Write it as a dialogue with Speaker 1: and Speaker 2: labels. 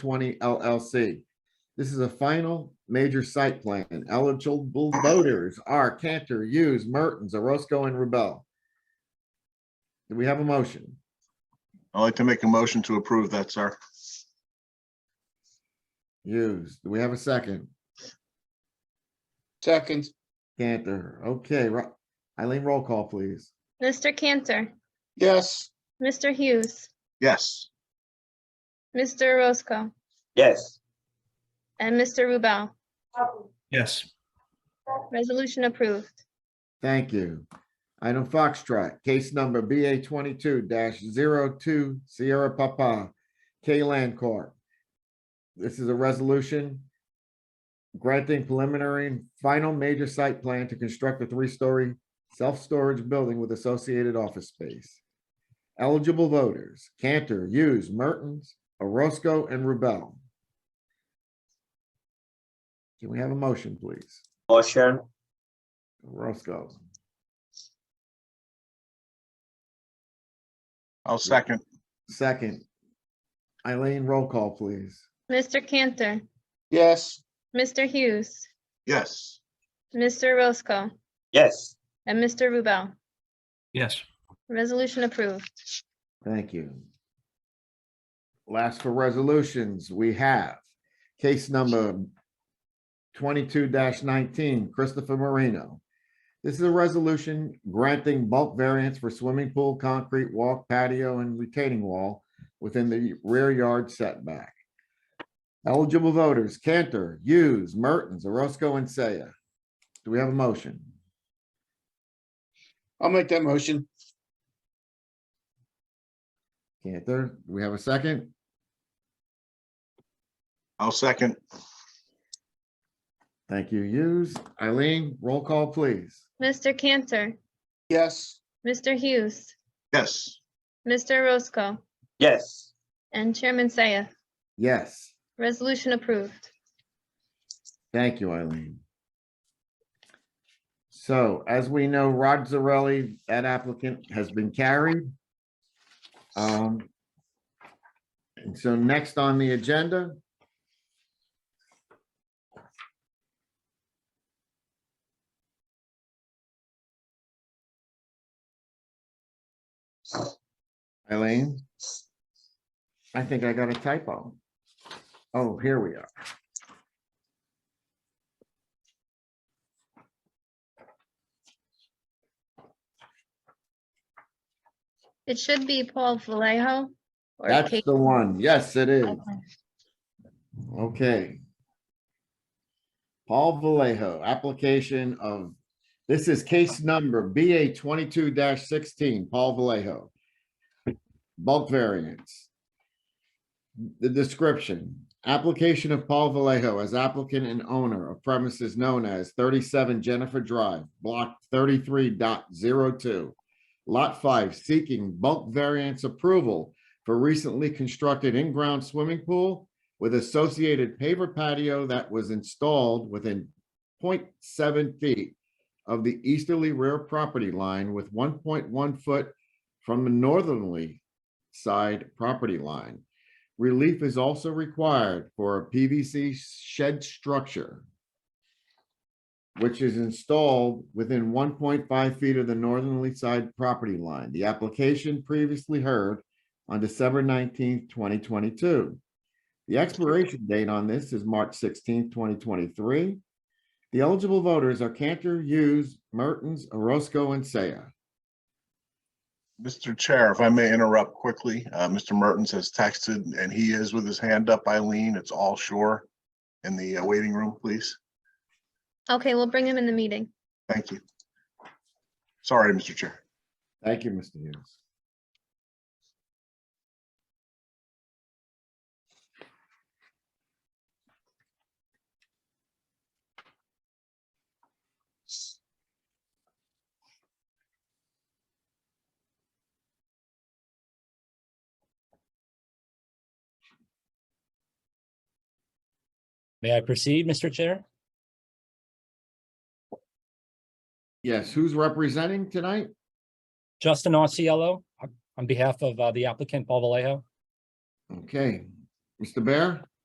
Speaker 1: twenty LLC. This is a final major site plan. Eligible voters are Cantor, Hughes, Mertens, Orozco, and Rebel. Do we have a motion?
Speaker 2: I'd like to make a motion to approve that, sir.
Speaker 1: Hughes, do we have a second?
Speaker 3: Second,
Speaker 1: Cantor, okay, Ro- Eileen, roll call, please.
Speaker 4: Mr. Cantor,
Speaker 3: yes,
Speaker 4: Mr. Hughes,
Speaker 2: Yes,
Speaker 4: Mr. Roscoe,
Speaker 5: yes,
Speaker 4: and Mr. Rubel.
Speaker 6: yes,
Speaker 4: Resolution approved.
Speaker 1: Thank you. Item Foxtrot, case number BA twenty-two 2 Sierra Papa, K Land Corp. This is a resolution granting preliminary and final major site plan to construct a three-story self-storage building with associated office space. Eligible voters, Cantor, Hughes, Mertens, Orozco, and Rubel. Can we have a motion, please?
Speaker 5: motion,
Speaker 1: Orozco.
Speaker 2: I'll second.
Speaker 1: Second. Eileen, roll call, please.
Speaker 4: Mr. Cantor,
Speaker 3: yes,
Speaker 4: Mr. Hughes,
Speaker 2: Yes,
Speaker 4: Mr. Roscoe,
Speaker 5: yes,
Speaker 4: and Mr. Rubel.
Speaker 6: yes,
Speaker 4: Resolution approved.
Speaker 1: Thank you. Last for resolutions, we have case number twenty-two nineteen, Christopher Marino. This is a resolution granting bulk variance for swimming pool, concrete walk, patio, and retaining wall within the rear yard setback. Eligible voters, Cantor, Hughes, Mertens, Orozco, and Saya. Do we have a motion?
Speaker 3: I'll make that motion.
Speaker 1: Cantor, do we have a second?
Speaker 2: I'll second.
Speaker 1: Thank you, Hughes. Eileen, roll call, please.
Speaker 4: Mr. Cantor,
Speaker 3: Yes,
Speaker 4: Mr. Hughes,
Speaker 2: Yes,
Speaker 4: Mr. Roscoe,
Speaker 5: yes,
Speaker 4: and Chairman Saya.
Speaker 1: Yes,
Speaker 4: Resolution approved.
Speaker 1: thank you, Eileen. So as we know, Rod Zarelli, that applicant has been carried. Um, And so next on the agenda. Eileen? I think I got a typo. Oh, here we are.
Speaker 4: It should be Paul Vallejo. or
Speaker 1: That's
Speaker 4: Kate-
Speaker 1: the one. Yes, it is.
Speaker 4: Okay.
Speaker 1: Okay. Paul Vallejo, application of, this is case number BA twenty-two sixteen, Paul Vallejo. Bulk variance. The description, application of Paul Vallejo as applicant and owner of premises known as thirty-seven Jennifer Drive, block 33.02, Lot five, seeking bulk variance approval for recently constructed in-ground swimming pool with associated paver patio that was installed within 0.7 feet of the easterly rear property line with one point one foot from the northerly side property line. Relief is also required for a PVC shed structure which is installed within one point five feet of the northerly side property line. The application previously heard on December nineteenth, twenty twenty-two. The expiration date on this is March sixteenth, twenty twenty-three. The eligible voters are Cantor, Hughes, Mertens, Orozco, and Saya.
Speaker 2: Mr. Chair, if I may interrupt quickly, uh, Mr. Mertens has texted and he is with his hand up, Eileen. It's all shore in the uh, waiting room, please.
Speaker 4: Okay, we'll bring him in the meeting.
Speaker 2: Thank you. Sorry, Mr. Chair.
Speaker 1: Thank you, Mr. Hughes.
Speaker 7: May I proceed, Mr. Chair?
Speaker 1: Yes, who's representing tonight?
Speaker 7: Justin Auciello, on behalf of uh, the applicant Paul Vallejo.
Speaker 1: Okay, Mr. Bear?